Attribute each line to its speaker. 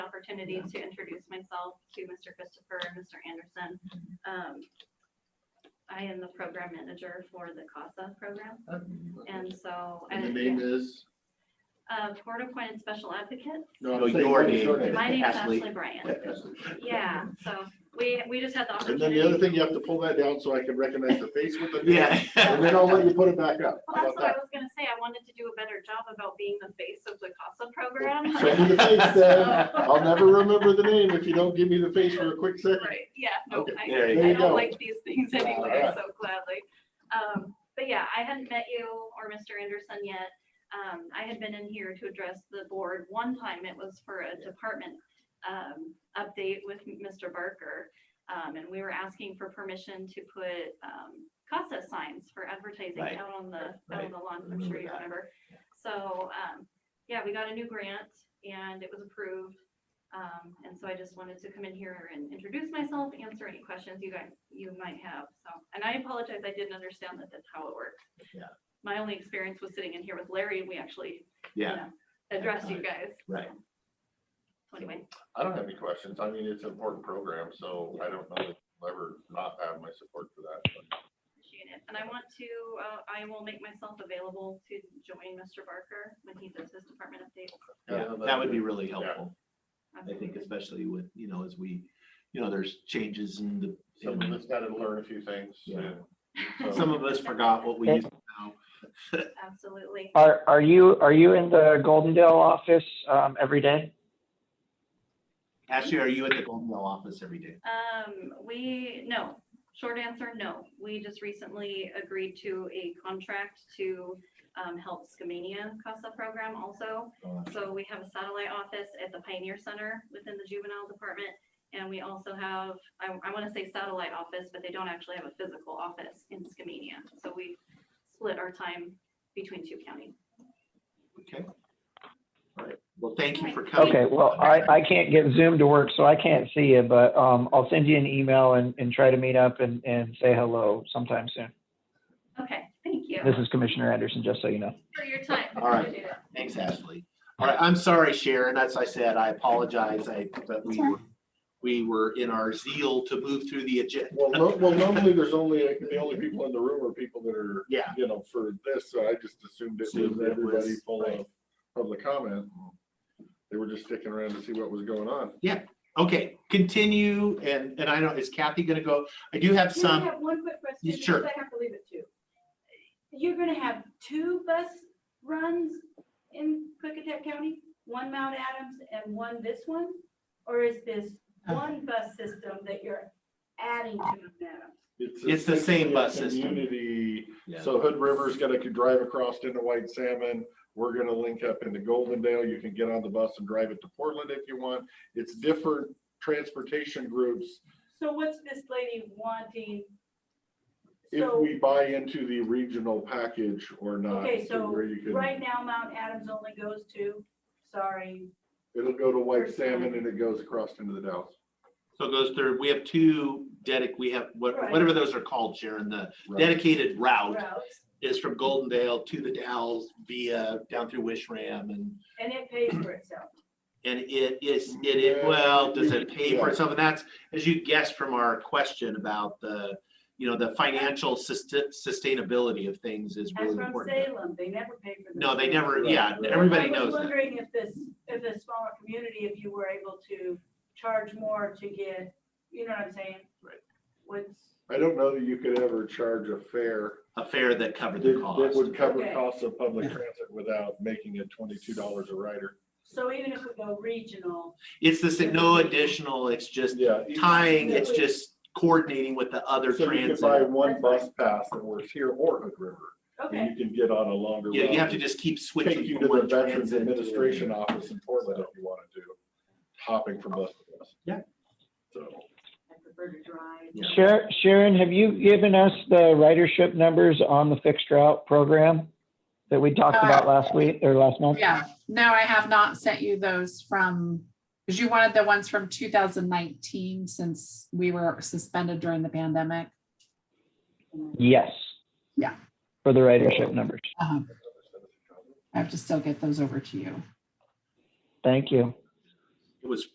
Speaker 1: opportunity to introduce myself to Mr. Christopher and Mr. Anderson. Um, I am the program manager for the CASA program, and so.
Speaker 2: And the
Speaker 1: I-
Speaker 2: name is,
Speaker 1: Uh, Board appointed special advocate.
Speaker 2: no,
Speaker 3: No,
Speaker 2: I'm saying,
Speaker 3: your
Speaker 2: what is
Speaker 3: name.
Speaker 2: your name?
Speaker 1: My name's
Speaker 3: Ashley.
Speaker 1: Ashley Bryant.
Speaker 2: Yeah.
Speaker 1: Yeah, so we, we just had the
Speaker 2: And
Speaker 1: opportunity.
Speaker 2: then the other thing, you have to pull that down so I can recognize the face with the. name,
Speaker 3: Yeah.
Speaker 2: And then I'll let you put it back up.
Speaker 1: Well,
Speaker 2: How
Speaker 1: that's what
Speaker 2: about
Speaker 1: I
Speaker 2: that?
Speaker 1: was gonna say. I wanted to do a better job about being the face of the CASA program.
Speaker 2: Show me the face then. I'll never remember the name if you don't give me the face for a quick second.
Speaker 1: Right, yeah, no,
Speaker 2: Okay,
Speaker 1: I,
Speaker 3: there you
Speaker 1: I
Speaker 2: go.
Speaker 1: don't like these things anyway,
Speaker 2: Alright.
Speaker 1: so gladly. Um, but yeah, I hadn't met you or Mr. Anderson yet. Um, I had been in here to address the board one time. It was for a department, um, update with Mr. Barker. Um, and we were asking for permission to put, um, CASA signs for advertising
Speaker 3: Right.
Speaker 1: out on the, out
Speaker 3: Right.
Speaker 1: on the lawn. I'm
Speaker 3: Remember
Speaker 1: sure you
Speaker 3: that.
Speaker 1: remember. So, um, yeah, we got a new grant and it was approved. Um, and so I just wanted to come in here and introduce myself, answer any questions you guys, you might have, so. And I apologize, I didn't understand that that's how it works.
Speaker 3: Yeah.
Speaker 1: My only experience was sitting in here with Larry and we actually, you
Speaker 3: Yeah,
Speaker 1: know, addressed you guys.
Speaker 3: right.
Speaker 1: So Anyway,
Speaker 4: I don't have any questions. I mean, it's an important program, so I don't know that I'll ever not have my support for that. but-
Speaker 1: appreciate it. And I want to, uh, I will make myself available to join Mr. Barker when he does his department update.
Speaker 3: Yeah,
Speaker 2: Yeah,
Speaker 3: that would be really helpful, I think,
Speaker 1: Absolutely.
Speaker 3: especially with, you know, as we, you know, there's changes in the,
Speaker 4: Some of us gotta learn a few things.
Speaker 3: Yeah.
Speaker 4: so-
Speaker 3: some of us forgot what we used to know.
Speaker 1: Absolutely.
Speaker 5: Are, are you, are you in the Goldendale office, um, every day?
Speaker 3: Ashley, are you at the Golden Dale office every day?
Speaker 1: Um, we, no, short answer, no. We just recently agreed to a contract to um, help Skamania CASA program also.
Speaker 3: Uh,
Speaker 1: So we have a satellite office at the Pioneer Center within the juvenile department. And we also have, I, I want to say satellite office, but they don't actually have a physical office in Skamania. So we split our time between two counties.
Speaker 3: Okay. All right, well, thank you for coming.
Speaker 5: Okay, well, I, I can't get Zoom to work, so I can't see you, but, um, I'll send you an email and, and try to meet up and, and say hello sometime soon.
Speaker 1: Okay, thank you
Speaker 5: This is Commissioner Anderson, just so you know.
Speaker 1: for your time.
Speaker 3: All right.
Speaker 1: Appreciate it.
Speaker 3: Thanks, Ashley. All right, I'm sorry, Sharon, as I said, I apologize, I, but we, were- we were in our zeal to move through the agenda.
Speaker 2: Well, no- well, normally there's only, the only people in the room are people that are,
Speaker 3: Yeah.
Speaker 2: you know, for this, so I just assumed it
Speaker 3: Assumed
Speaker 2: was
Speaker 3: it was-
Speaker 2: everybody full of
Speaker 3: right.
Speaker 2: public comment. They were just sticking around to see what was going on.
Speaker 3: Okay, continue, and, and I know, is Kathy gonna go? I do have
Speaker 6: Can I
Speaker 3: some,
Speaker 6: have one quick question? because
Speaker 3: Sure.
Speaker 6: I have to leave at two. You're gonna have two bus runs in Klickitat County, one Mount Adams and one this one? Or is this
Speaker 3: Uh.
Speaker 6: one bus system that you're adding to Mount Adams?
Speaker 3: It's the same
Speaker 2: essentially a
Speaker 3: bus system.
Speaker 2: Community,
Speaker 3: Yeah.
Speaker 2: so Hood River's gonna could drive across into White Salmon. We're gonna link up into Goldendale. You can get on the bus and drive it to Portland if you want. It's different transportation groups
Speaker 6: So what's this lady wanting?
Speaker 2: if
Speaker 6: So,
Speaker 2: we uh, buy into the regional package or not.
Speaker 6: okay,
Speaker 2: to
Speaker 6: so
Speaker 2: where you can-
Speaker 6: right now Mount Adams only goes to, sorry,
Speaker 2: It'll go to White
Speaker 6: First time.
Speaker 2: Salmon and it goes across into the Dalles.
Speaker 3: so it goes through, we have two dedic, we have, what-
Speaker 6: Right.
Speaker 3: whatever those are called, Sharon, the
Speaker 2: Right.
Speaker 3: dedicated route
Speaker 6: routes,
Speaker 3: is from Goldendale to the Dalles via, down through Wishram and,
Speaker 6: and it pays for itself.
Speaker 3: and it is, it, is- well, does it pay for
Speaker 2: Yeah.
Speaker 3: itself? And that's, as you guessed from our question about the, you know, the financial suste- sustainability of things is
Speaker 6: I'm
Speaker 3: really
Speaker 6: from
Speaker 3: important.
Speaker 6: Salem, they never pay for.
Speaker 3: No, they
Speaker 6: themselves.
Speaker 3: never,
Speaker 2: Right,
Speaker 3: yeah,
Speaker 2: right.
Speaker 3: everybody
Speaker 6: I was
Speaker 3: knows that.
Speaker 6: wondering if this, if the smaller community, if you were able to charge more to get, you know what I'm saying?
Speaker 3: Right.
Speaker 6: What's,
Speaker 2: I don't know that you could ever charge a fare
Speaker 3: A fare that covered
Speaker 2: that
Speaker 3: the
Speaker 2: that
Speaker 3: cost.
Speaker 2: would cover
Speaker 6: Okay.
Speaker 2: costs of public transit without making it twenty-two dollars a rider.
Speaker 6: so even if we go regional,
Speaker 3: It's the, sa- no additional, it's just
Speaker 2: Yeah.
Speaker 3: tying,
Speaker 2: Yeah.
Speaker 3: it's just coordinating with the other
Speaker 2: So you could buy
Speaker 3: transit.
Speaker 2: one
Speaker 6: That's
Speaker 2: bus pass that works here or Hood River, and
Speaker 6: okay,
Speaker 2: you can get on a longer route.
Speaker 3: Yeah, you have to just keep
Speaker 2: Take
Speaker 3: switching
Speaker 2: um, you
Speaker 3: from
Speaker 2: to the
Speaker 3: one
Speaker 2: Veterans
Speaker 3: transit. to
Speaker 2: Administration Office in Portland if you want to do, hopping from bus to bus.
Speaker 3: Yeah.
Speaker 2: So,
Speaker 6: I prefer to drive.
Speaker 3: Yeah.
Speaker 5: Sharon, Sharon, have you given us the ridership numbers on the fixed route program that we talked about last week or last month?
Speaker 7: Yeah, no, I have not sent you those from, because you wanted the ones from two thousand nineteen since we were suspended during the pandemic.
Speaker 5: Yes.
Speaker 7: Yeah.
Speaker 5: For the ridership numbers.
Speaker 7: Um, I have to still get those over to you.
Speaker 5: Thank you.
Speaker 3: It was